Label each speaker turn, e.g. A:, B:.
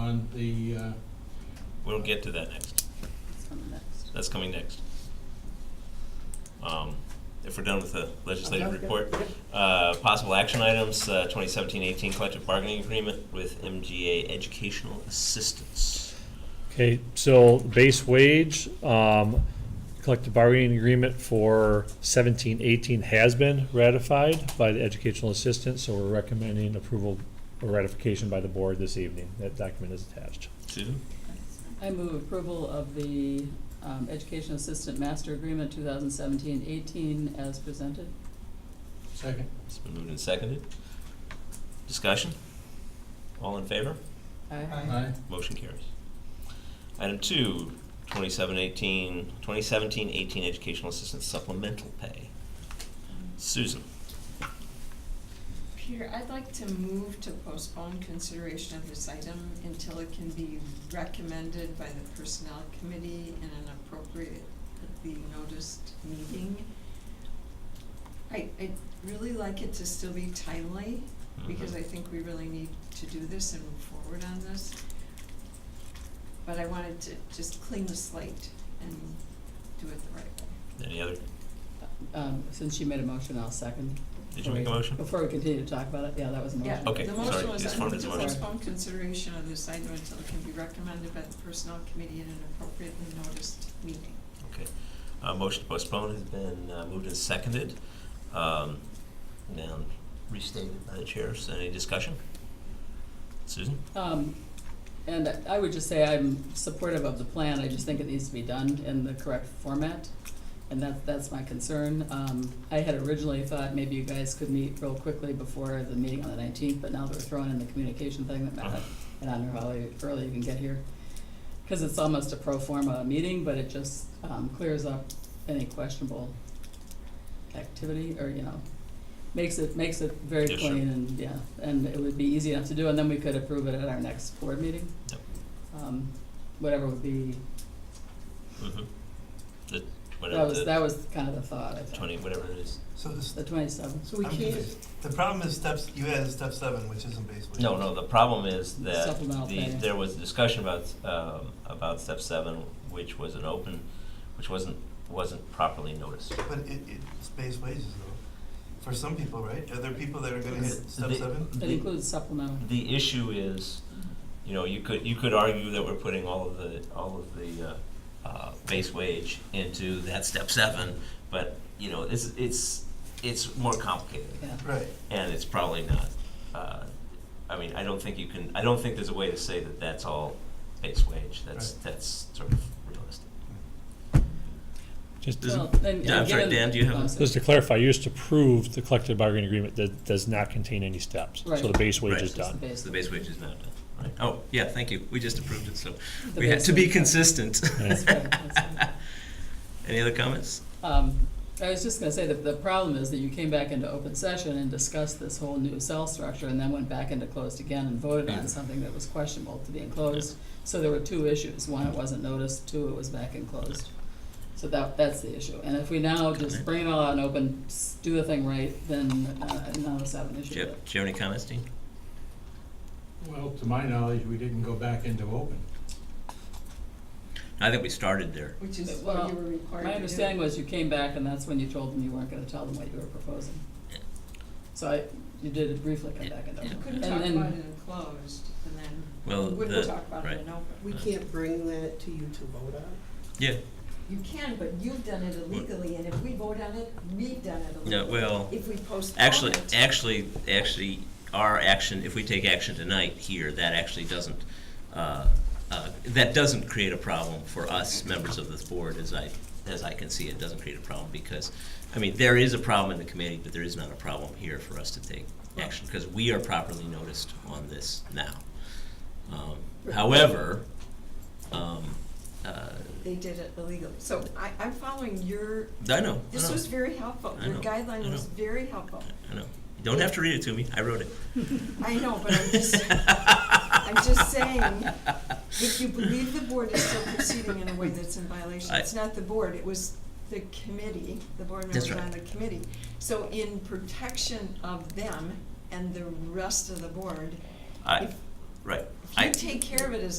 A: on the, uh,
B: We'll get to that next.
C: It's coming next.
B: That's coming next. Um, If we're done with the legislative
A: Okay,
B: report,
A: yep.
B: uh, possible action items, uh, 2017-18 collective bargaining agreement with MGA Educational Assistance.
D: Okay, so base wage, um, collective bargaining agreement for seventeen eighteen has been ratified by the educational assistant, so we're recommending approval or ratification by the board this evening. That document is attached.
B: Susan?
C: I move approval of the um, Education Assistant Master Agreement 2017-18 as presented.
A: second,
B: It's been moved and seconded. Discussion? All in favor?
C: Aye.
A: aye,
B: Motion carries. Item two, 2017-18 2017-18 educational assistance supplemental pay. Susan?
E: Peter, I'd like to move to postpone consideration of this item until it can be recommended by the Personnel Committee in an appropriately noticed meeting. I, I'd really like it to still be timely,
B: Mm-hmm.
E: because I think we really need to do this and move forward on this. But I wanted to just clean the slate and do it the right way.
B: Any other,
C: Um, Since she made a motion, I'll second.
B: did you make a motion?
C: Before we continue to talk about it, yeah, that was a motion.
E: Yeah,
B: Okay,
E: the motion
B: sorry,
E: was,
B: just
E: I
B: formed
E: move
B: as
E: to
B: a motion.
E: postpone consideration of this item until it can be recommended by the personnel committee in an appropriately noticed meeting.
B: Okay. Uh, motion to postpone has been uh, moved and seconded. Um, now restated by the chair. So Any discussion? Susan?
C: Um, And I would just say I'm supportive of the plan, I just think it needs to be done in the correct format, and that, that's my concern. Um, I had originally thought maybe you guys could meet real quickly before the meeting on the nineteenth, but now that we're throwing in the communication thing, that matters, and I don't know how early- early you can get here. Because it's almost a pro forma meeting, but it just um, clears up any questionable activity, or, you know, makes it, makes it very
B: Yeah, sure.
C: clean and, yeah, and it would be easy enough to do, and then we could approve it at our next board meeting.
B: Yep.
C: Um, whatever would be,
B: Mm-hmm. The,
C: that
B: whatever
C: was,
B: the
C: that was kind of the thought, I think,
B: twenty, whatever it is.
F: So this,
C: the twenty-seventh.
G: So we
F: I'm
G: can't,
F: confused. the problem is steps, you added step seven, which isn't basically.
B: No, no, the problem is that
C: Supplemental
B: the,
C: pay.
B: there was discussion about, um, about step seven, which was an open, which wasn't, wasn't properly noticed.
F: But it, it's base wages though, for some people, right? Are there people that are gonna hit step
B: The-
F: seven?
C: It
B: the-
C: includes supplemental.
B: The issue is, you know, you could, you could argue that we're putting all of the, all of the, uh, uh, base wage into that step seven, but, you know, it's, it's, it's more complicated,
C: Yeah,
F: Right,
B: and it's probably not, uh, I mean, I don't think you can, I don't think there's a way to say that that's all base wage, that's, that's sort of realistic.
D: Just,
B: Does it-
C: well, and,
B: Yeah, I'm
C: and
B: sorry,
C: given-
B: Dan, do you have
C: oh,
B: a-
C: I'm sorry.
D: just to clarify, you just approved the collective bargaining agreement that does not contain any steps. So
C: Right.
D: the base wage
B: Right.
D: is
C: Just the
D: done.
C: base.
B: So the base wage is not done, right? Oh, yeah, thank you, we just approved it, so
C: The
B: we had
C: base
B: to be
C: wage.
B: consistent.
C: That's right, that's right.
B: Any other comments?
C: Um, I was just gonna say that the problem is that you came back into open session and discussed this whole new cell structure and then went back into closed again and voted on something that was questionable to be in closed. So there were two issues. One, it wasn't noticed. Two, it was back in closed. So that, that's the issue. And if we now just bring it all out in open, s- do the thing right, then, uh, none of us have an
B: Do
C: issue
B: you
C: with it.
B: have, do you have any comments, Dean?
A: well, to my knowledge, we didn't go back into open.
B: I think we started there.
E: Which is
C: Well,
E: what you were required to do.
C: My understanding was you came back and that's when you told them you weren't gonna tell them what you were proposing. So I, you did briefly come back into
B: Yeah.
E: You
C: open.
E: couldn't
C: And
E: talk about it
C: then-
E: in closed, and then
B: Well,
E: you
B: the-
E: wouldn't talk about
B: right.
E: it in open.
G: we can't bring that to you to vote on?
B: Yeah,
E: You can, but you've done it illegally, and if we vote on it, we've done it illegally.
B: no, well,
E: If we postpone it.
B: actually, actually, actually, our action, if we take action tonight here, that actually doesn't, uh, uh, that doesn't create a problem for us, members of this board, as I, as I can see, it doesn't create a problem, because, I mean, there is a problem in the committee, but there is not a problem here for us to take action, because we are properly noticed on this now. Um, However, um, uh,
E: They did it illegally. So I, I'm following your,
B: I know, I
E: this
B: know.
E: was very helpful.
B: I
E: Your
B: know, I
E: guideline was
B: know.
E: very helpful.
B: I know. You don't have to read it to me. I wrote it.
E: I know, but I'm just, I'm just saying, if you believe the board is still proceeding in a way that's in violation,
B: I-
E: it's not the board, it was the committee, the board
B: That's
E: members on the
B: right.
E: committee. So in protection of them and the rest of the board,
B: I,
E: if
B: Right.
E: If
B: I-
E: you take care of it as a